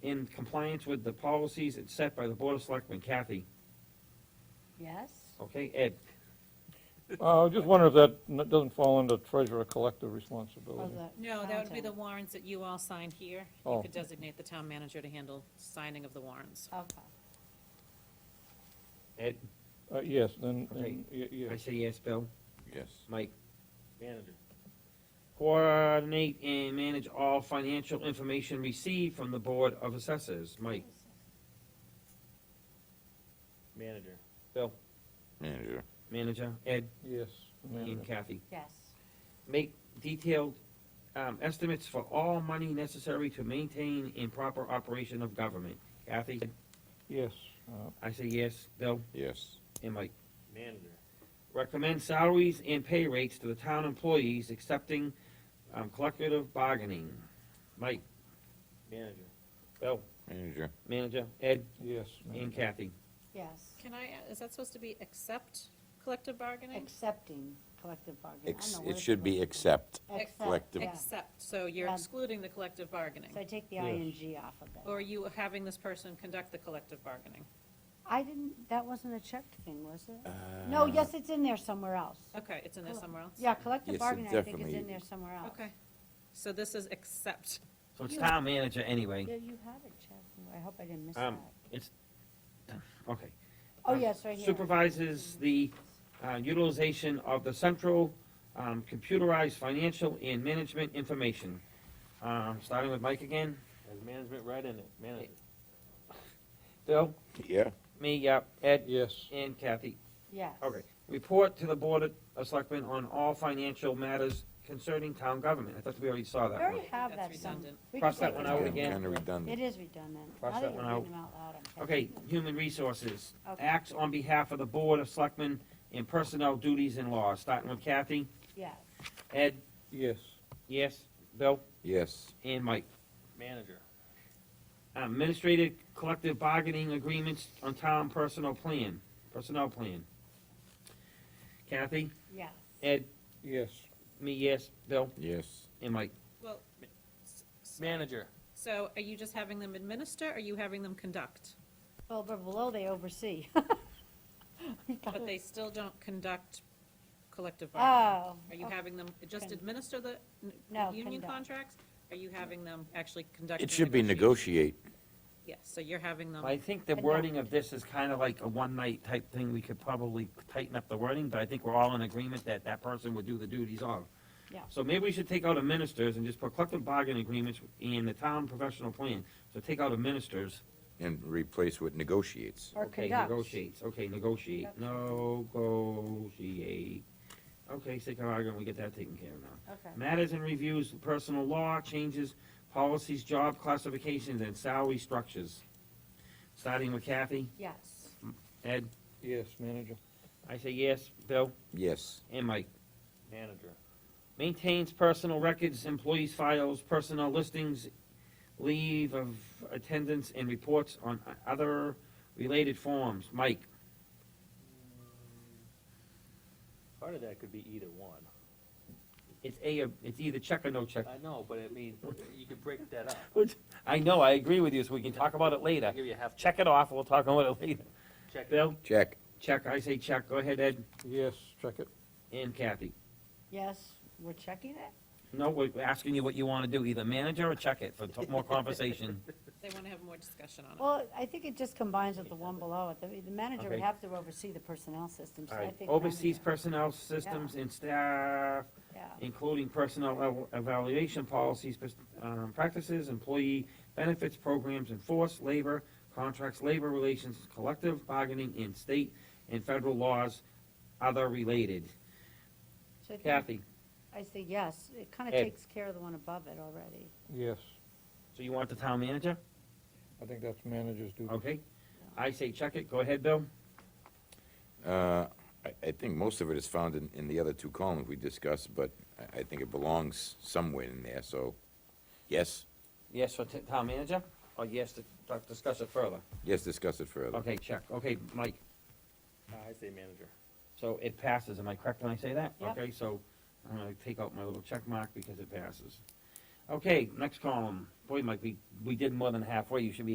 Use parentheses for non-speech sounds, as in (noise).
in compliance with the policies and set by the Board of Selectmen. Kathy, Yes? okay, Ed? Uh, I just wonder if that n- doesn't fall under treasurer collector responsibility. No, that would be the warrants that you all signed here. You Oh. could designate the town manager to handle signing of the warrants. Okay. Ed, Uh, yes, then, then, Okay. y- I yes. say yes, Bill, Yes. Mike? Manager. Coordinate and manage all financial information received from the Board of Assessors. Mike? Manager. Bill. Manager. Manager, Ed, Yes. and Kathy. Yes. Make detailed um, estimates for all money necessary to maintain and proper operation of government. Kathy, Yes, uh, I say yes. Bill Yes. and Mike. Manager. Recommend salaries and pay rates to the town employees accepting um, collective bargaining. Mike, Manager. Bill, Manager. Manager, Ed, yes. and Kathy. Yes. Can I, is that supposed to be accept collective bargaining? Accepting collective bargaining. I don't Ex- know what It it's should be called. except. Accept, collective. yeah. Accept, so you're Um, excluding the collective bargaining. So I take the Yes. ing off of Or it. are you having this person conduct the collective bargaining? I didn't, that wasn't a checked thing, was Uh, it? No, yes, it's in there somewhere else. Okay, it's in there Cool. somewhere else? Yeah, collective Yes, it bargaining, I think, is definitely- in there somewhere else. Okay, so this is accept. So it's town manager anyway. Yeah, you have it checked. I hope I didn't miss that. Um, It's, okay. Oh, um, yes, right here. Supervises the uh, utilization of the central um, computerized financial and management information. Um, Starting with Mike again. Has management right in it. Manager. Bill? Yeah. Me, yep. Ed? Yes, And Kathy. Yes. Okay. Report to the Board of Selectmen on all financial matters concerning town government. I thought we already saw We that one. already have That's that some. redundant. We Cross could that take one it out out. again. Kind of It redundant. is redundant. Cross Now that you're one reading out. them out loud, I'm Okay, catching human resources. them. Okay, Acts on behalf of the Board of Selectmen in personnel duties and laws. Starting with Kathy. yes. Ed? yes, Yes. Bill? Yes. And Mike. Manager. Administrative collective bargaining agreements on town personal plan, personnel plan. Kathy, Yes. Ed, yes, me, yes, Bill, Yes. and Mike. Well, s- s- Manager. so are you just having them administer, or are you having them conduct? Well, but below they oversee. (laughs) But they still don't conduct collective bargaining? Oh, Are you okay. having them just Con- administer the n- No, union conduct. contracts? Are you having them actually conduct? It the should be negotiations? negotiate. Yes, so you're having them, I Um, think the wording of this is kind of like a one-night type thing, we could probably tighten up the wording, but I think we're all in agreement that that person would do the duties of. Yeah. So maybe we should take out administers and just put collective bargaining agreements in the town professional plan, so take out administers. And replace with negotiates. Or Okay, conducts. Negotiates, okay, negotiate, Yep. negotiate. Okay, sick of arguing, we get that taken care of now. Okay, Matters and reviews, personal law, changes, policies, job classifications, and salary structures. Starting with Kathy, yes. Ed, yes, manager, I say yes, Bill, Yes. and Mike. Manager. Maintains personal records, employees' files, personnel listings, leave of attendance, and reports on other related forms. Mike, Part of that could be either one. it's a, it's either check or no check. I know, but I mean, you could break that up. I know, I agree with you, so we can talk about it later. I'll give you a half check. Check it off, we'll talk about it later. Check. Bill, Check. check, I say check, go ahead, Ed, yes, check it, and Kathy. Yes, we're checking it? No, we're we're asking you what you want to do, either manager or check it for t- more conversation. they want to have more discussion on it. Well, I think it just combines with the one below it. The- The manager would Okay. have to oversee the personnel system, so All (laughs) I right, think. oversees manager, personnel systems and staff, Yeah, including personnel ev- evaluation policies, pers- um, practices, employee benefits programs, enforced labor, contracts, labor relations, collective bargaining in state and federal laws, other related. so I think- Kathy, I say yes. It kind of Ed. takes care of the one above it already. yes. so you want the town manager? I think that's manager's duty. Okay, I say check it, go ahead, Bill. Uh, I, I think most of it is found in, in the other two columns we discussed, but I, I think it belongs somewhere in there, so, yes, Yes for t- town manager, or yes to to discuss it further? yes, discuss it further. Okay, check, okay, Mike. I say manager. So it passes, am I correct when I say that? Yep. Okay, so I'm gonna take out my little check mark because it passes. Okay, next column. Boy, Mike, we, we did more than halfway. You should be